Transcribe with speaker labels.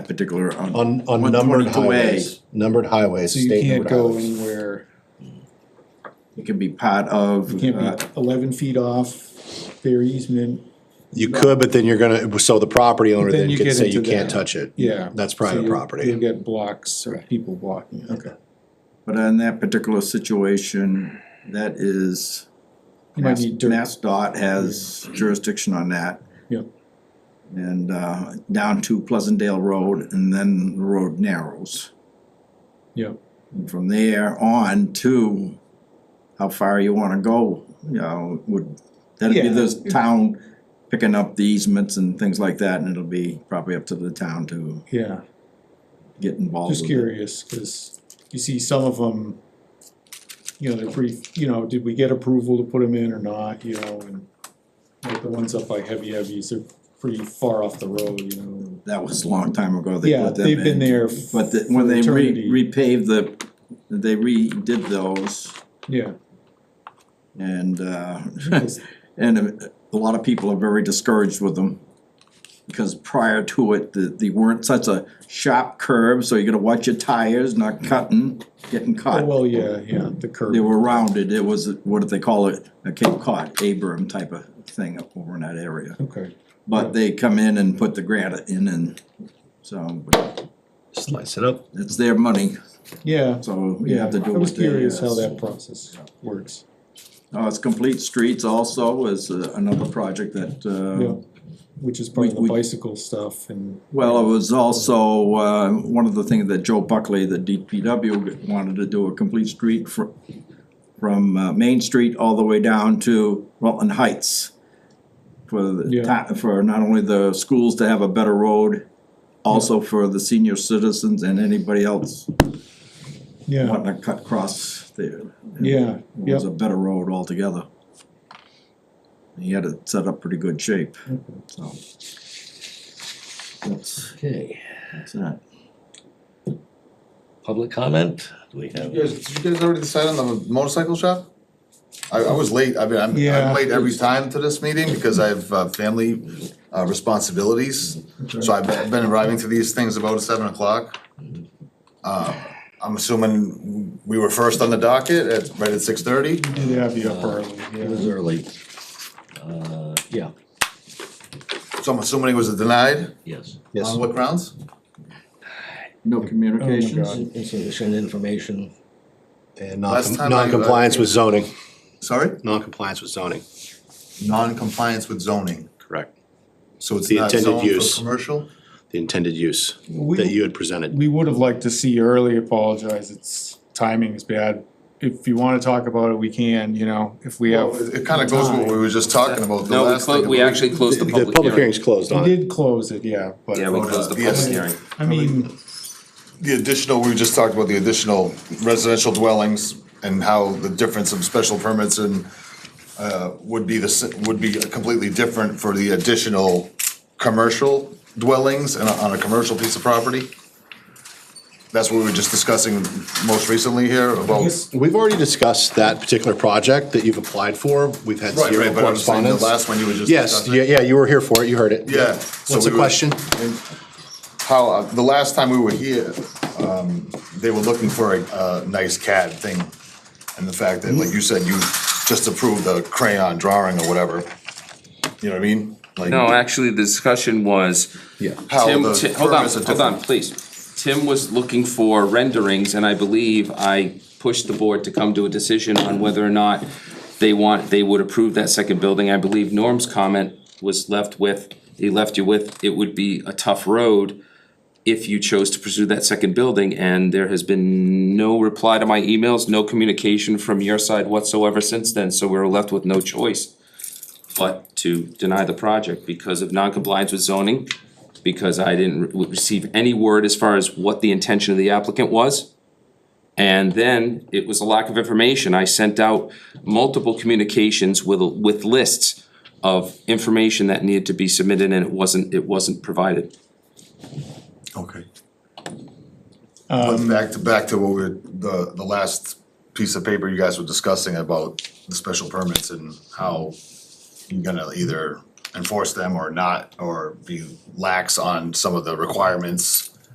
Speaker 1: particular um, on.
Speaker 2: Uh,
Speaker 3: on, on
Speaker 1: One
Speaker 3: numbered
Speaker 1: twenty-two A.
Speaker 3: highways, numbered highways,
Speaker 2: So you
Speaker 3: state
Speaker 2: can't
Speaker 3: numbered
Speaker 2: go
Speaker 3: highways.
Speaker 2: anywhere,
Speaker 1: It can be part of.
Speaker 2: you
Speaker 1: uh,
Speaker 2: can't be eleven feet off their easement,
Speaker 3: You could, but then you're gonna, so the property owner
Speaker 2: But then
Speaker 3: then
Speaker 2: you
Speaker 3: could
Speaker 2: get
Speaker 3: say you
Speaker 2: into
Speaker 3: can't
Speaker 2: that.
Speaker 3: touch it.
Speaker 2: yeah.
Speaker 3: That's
Speaker 2: So
Speaker 3: private
Speaker 2: you-
Speaker 3: property.
Speaker 2: You'll get blocks of people blocking, it.
Speaker 3: Okay.
Speaker 1: But in that particular situation, that is,
Speaker 2: You might need dirt,
Speaker 1: Mass dot has jurisdiction on that.
Speaker 2: Yep.
Speaker 1: And uh, down to Pleasantdale Road, and then the road narrows.
Speaker 2: Yep.
Speaker 1: And from there on to how far you wanna go, you know, would, that'd be
Speaker 2: Yeah.
Speaker 1: this town picking up the easements and things like that, and it'll be probably up to the town to
Speaker 2: yeah.
Speaker 1: get involved
Speaker 2: Just
Speaker 1: with it.
Speaker 2: curious, cause you see some of them, you know, they're pretty, you know, did we get approval to put them in or not, you know, and like the ones up by Heavy Heavies, they're pretty far off the road, you know. and-
Speaker 1: That was a long time ago they
Speaker 2: Yeah,
Speaker 1: put them in.
Speaker 2: they've been there for
Speaker 1: But the- when they
Speaker 2: eternity.
Speaker 1: re- repaved the, they redid those
Speaker 2: Yeah,
Speaker 1: and, uh,
Speaker 2: because
Speaker 1: and uh, a lot of people are very discouraged with them. Because prior to it, the, they weren't such a sharp curve, so you gotta watch your tires, not cutting, getting
Speaker 2: Oh,
Speaker 1: caught.
Speaker 2: well, yeah, yeah, the curb.
Speaker 1: They were rounded, it was, what do they call it, a Cape Cod, Abram type of thing up over in that area.
Speaker 2: Okay,
Speaker 1: But they come in and put the granite in and, so, but
Speaker 3: Slice it up.
Speaker 1: it's their money,
Speaker 2: yeah,
Speaker 1: so you
Speaker 2: yeah,
Speaker 1: have to do
Speaker 2: I was
Speaker 1: what they.
Speaker 2: curious
Speaker 1: uh,
Speaker 2: how that process works.
Speaker 1: Uh, it's Complete Streets also is uh, another project that,
Speaker 2: Yeah,
Speaker 1: uh,
Speaker 2: which is part of the
Speaker 1: we- we-
Speaker 2: bicycle stuff and.
Speaker 1: well, it was also, uh, one of the things that Joe Buckley, the DPW, wanted to do a complete street fr- from, uh, Main Street all the way down to Rutland Heights. For the,
Speaker 2: Yeah.
Speaker 1: ta- for not only the schools to have a better road, also for the senior citizens and anybody else
Speaker 2: Yeah,
Speaker 1: wanting to cut across there.
Speaker 2: yeah,
Speaker 1: It
Speaker 2: yep,
Speaker 1: was a better road altogether. He had it set up pretty good shape, so. That's,
Speaker 4: Okay,
Speaker 1: that's that.
Speaker 4: public comment, do we have?
Speaker 5: You guys, did you guys already decide on the motorcycle shop? I, I was late, I mean, I'm,
Speaker 2: Yeah.
Speaker 5: I'm late every time to this meeting because I have, uh, family, uh, responsibilities. So I've been- been arriving to these things about seven o'clock. Uh, I'm assuming we were first on the docket at, right at six thirty?
Speaker 2: you did have you up
Speaker 1: uh,
Speaker 2: early,
Speaker 4: It was
Speaker 2: yeah.
Speaker 4: early. Uh, yeah,
Speaker 5: So I'm assuming it was denied?
Speaker 4: yes.
Speaker 3: Yes.
Speaker 5: On what grounds?
Speaker 1: No
Speaker 2: Oh,
Speaker 1: communications?
Speaker 2: my
Speaker 4: Insufficient information,
Speaker 3: And
Speaker 5: Last
Speaker 3: non-
Speaker 5: time I-
Speaker 3: non-compliance with zoning,
Speaker 5: Sorry?
Speaker 3: non-compliance with zoning,
Speaker 5: Non-compliance with zoning,
Speaker 3: correct.
Speaker 5: so it's
Speaker 3: The
Speaker 5: not
Speaker 3: intended
Speaker 5: zoned
Speaker 3: use.
Speaker 5: for commercial?
Speaker 3: The intended use
Speaker 2: We-
Speaker 3: that you had presented.
Speaker 2: We would have liked to see you early, apologize, it's, timing is bad. If you wanna talk about it, we can, you know, if we have.
Speaker 5: Well, It kinda goes with what we were just talking about, the
Speaker 6: No, we
Speaker 5: last thing.
Speaker 6: closed, we actually closed the
Speaker 3: The
Speaker 6: public
Speaker 3: public
Speaker 6: hearing.
Speaker 3: hearing's closed
Speaker 2: We
Speaker 3: on it.
Speaker 2: did close it, yeah, but,
Speaker 6: Yeah, we closed the
Speaker 5: Yes.
Speaker 6: public hearing.
Speaker 2: I mean,
Speaker 5: the additional, we just talked about the additional residential dwellings and how the difference of special permits and uh, would be the, s- would be completely different for the additional commercial dwellings and on a commercial piece of property. That's what we were just discussing most recently here about.
Speaker 3: We've already discussed that particular project that you've applied for. We've had
Speaker 5: Right,
Speaker 3: zero
Speaker 5: right, but I'm saying the
Speaker 3: correspondence.
Speaker 5: last one you were just
Speaker 3: Yes,
Speaker 5: discussing.
Speaker 3: yeah, yeah, you were here for it, you heard it.
Speaker 5: Yeah. so
Speaker 3: What's the
Speaker 5: we were-
Speaker 3: question?
Speaker 5: How, uh, the last time we were here, um, they were looking for a, uh nice CAD thing. And the fact that, like you said, you just approved the crayon drawing or whatever. You know what I mean? Like,
Speaker 6: No, actually, the discussion was,
Speaker 4: yeah.
Speaker 5: how
Speaker 6: Tim,
Speaker 5: the
Speaker 6: Ti- hold on,
Speaker 5: permits are
Speaker 6: hold on,
Speaker 5: different.
Speaker 6: please. Tim was looking for renderings, and I believe I pushed the board to come to a decision on whether or not they want, they would approve that second building. I believe Norm's comment was left with, he left you with, it would be a tough road if you chose to pursue that second building, and there has been no reply to my emails, no communication from your side whatsoever since then, so we're left with no choice but to deny the project because of non-compliance with zoning, because I didn't re- receive any word as far as what the intention of the applicant was. And then it was a lack of information. I sent out multiple communications with, with lists of information that needed to be submitted and it wasn't, it wasn't provided.
Speaker 5: Okay. But back to, back to what we, were- the, the last piece of paper you guys were discussing about the special permits and how you're gonna either enforce them or not, or be lax on some of the requirements